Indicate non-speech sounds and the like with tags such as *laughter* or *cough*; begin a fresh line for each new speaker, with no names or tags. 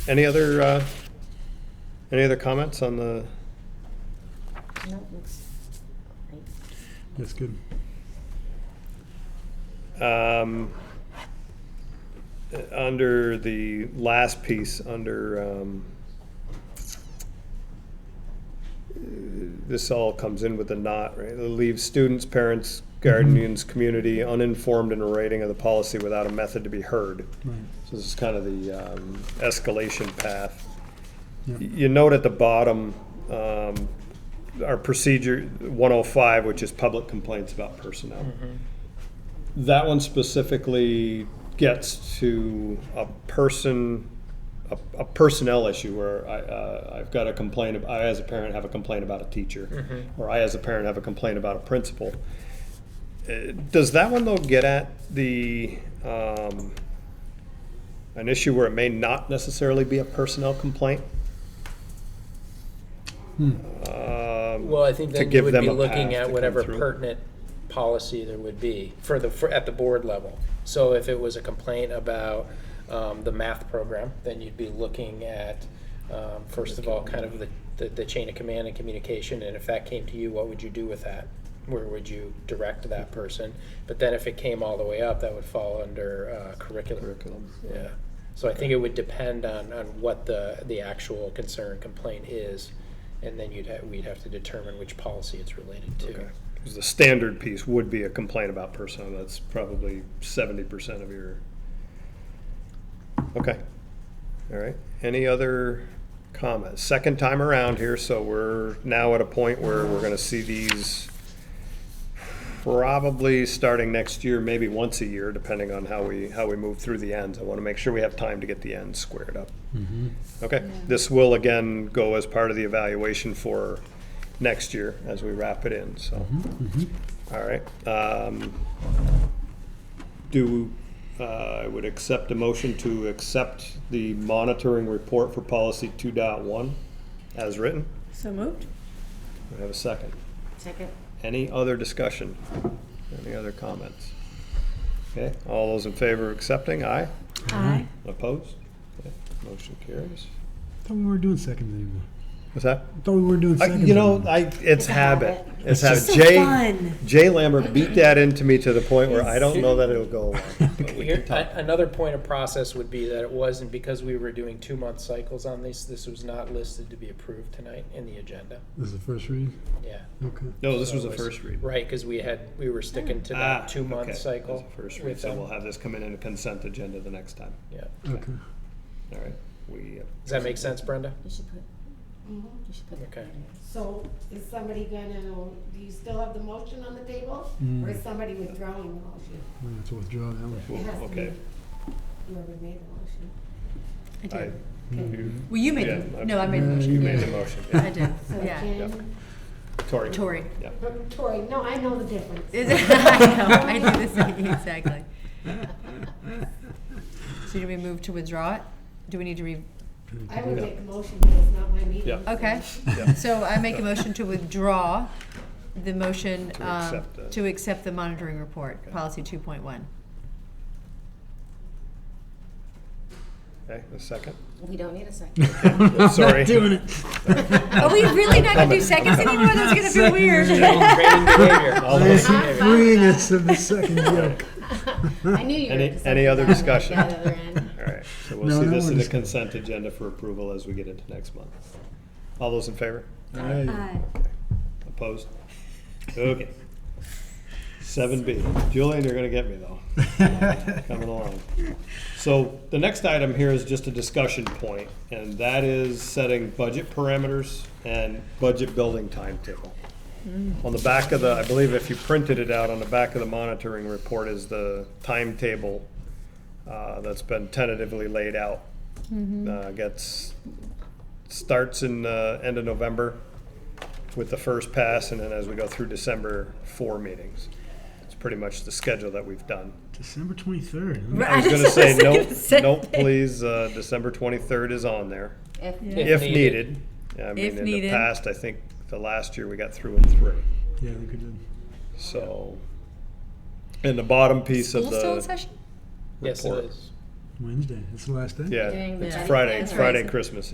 Any other, uh, any other comments on the,
No, it looks great.
That's good.
um, uh, under the last piece, under, um, this all comes in with a knot, right? It leaves students, parents, guardians, community uninformed in a rating of the policy without a method to be heard.
Right.
So this is kind of the um, escalation path.
Yeah.
Y- You note at the bottom, um, our procedure 105, which is public complaints about personnel. That one specifically gets to a person, a a personnel issue where I, uh, I've got a complaint, ab- I as a parent have a complaint about a teacher, or I as a parent have a complaint about a principal. Uh, Does that one though get at the, um, an issue where it may not necessarily be a personnel complaint?
Hmm.
Um,
Well, I think
to
then you
give
would
them
be
a path
looking
to
at
come
whatever
through.
pertinent policy there would be for the, for, at the board level. So if it was a complaint about, um, the math program, then you'd be looking at, um, first of all, kind of the, the, the chain of command and communication, and if that came to you, what would you do with that? Where would you direct that person? But then if it came all the way up, that would fall under, uh, curriculum.
Curriculum.
Yeah, so I think it would depend on, on what the, the actual concern complaint is, and then you'd have, we'd have to determine which policy it's related to.
'Cause The standard piece would be a complaint about personnel, that's probably seventy percent of your. Okay, all right, any other comments? Second time around here, so we're now at a point where we're gonna see these probably starting next year, maybe once a year, depending on how we, how we move through the ends. I wanna make sure we have time to get the ends squared up.
Mm-hmm.
Okay, this will again go as part of the evaluation for next year as we wrap it in, so,
Mm-hmm.
all right. Um, Do, uh, I would accept a motion to accept the monitoring report for policy 2.1 as written.
So moved.
Do I have a second?
Second?
Any other discussion? Any other comments? Okay, all those in favor of accepting, aye?
Aye.
Opposed? Okay, Motion carries.
Thought we weren't doing seconds anymore.
What's that?
Thought we weren't doing
I,
seconds.
you know,
anymore.
I it's
a
habit.
habit.
It's
It's
habit.
just
so
Jay
fun.
Jay Lambert beat that into me to the point where I don't know that it'll go away. but we
Here,
can talk.
a- another point of process would be that it wasn't because we were doing two-month cycles on these, this was not listed to be approved tonight in the agenda,
this is the first read.
yeah.
Okay.
No, Oh, this was
So
the
it
first read.
Right, because we had, we were sticking to
Ah,
that
okay.
two-month cycle.
That's the First read,
with
so
them.
we'll have this come in in a consent agenda the next time.
Yeah,
Okay.
All right, we, uh,
does that make sense, Brenda?
You should put, you should put that
Okay.
in.
So is somebody gonna, do you still have the motion on the table?
Mm.
Or is somebody withdrawing the motion?
I'm gonna have to withdraw that one.
Well,
It has to be-
okay.
Whoever made the motion.
I
I,
did.
you,
Well, you made,
yeah,
the
I- Mm,
no, I made the
Yeah,
motion.
you
yeah.
made the motion.
I did,
So
yeah.
Jen,
Tori.
Tori.
Yeah.
um, Tori, no, I know the difference.
Is it- *laughs* *laughs* I know, I
*laughs*
do this, exactly. So do we move to withdraw it? Do we need to re,
I would make a motion, but it's not my meeting.
Yeah.
so-
okay.
*laughs*
Yeah.
So I make a motion to withdraw the motion
To
um,
accept the-
to accept the monitoring report,
Okay.
policy 2.1.
Okay, a second.
We don't need a second.
*laughs* *laughs* Sorry.
Not doing it.
Are we really not gonna do seconds anymore? That's gonna feel weird.
Training behavior.
All
The
those,
freeness of the second joke.
I knew you were.
Any-
gonna say
any other
that at
discussion?
The other end.
all right, so we'll
No,
see
no
this in the
one's-
consent agenda for approval as we get into next month. All those in favor?
Aye.
Opposed? Okay. Seven B. Julian, you're gonna get me though, coming along. So the next item here is just a discussion point, and that is setting budget parameters and budget building timetable. On the back of the, I believe if you printed it out, on the back of the monitoring report is the timetable uh, that's been tentatively laid out. Uh, Gets, starts in, uh, end of November with the first pass, and then as we go through December, four meetings. It's pretty much the schedule that we've done.
*laughs* December 23rd. huh?
Right.
I was
just
gonna say,
was
nope,
gonna say
nope,
that.
please, uh, December twenty-third is on there,
If,
*laughs* Yeah.
if
If
needed.
needed.
I
If
mean, in the
needed.
past, I think the last year we got through in three,
Yeah, I think we did.
so. And the bottom piece of
School still in
the
session?
Yes, it
report.
is.
Wednesday. It's the last day.
Yeah,
Doing
it's
the-
Friday, it's Friday
Right.
Christmas.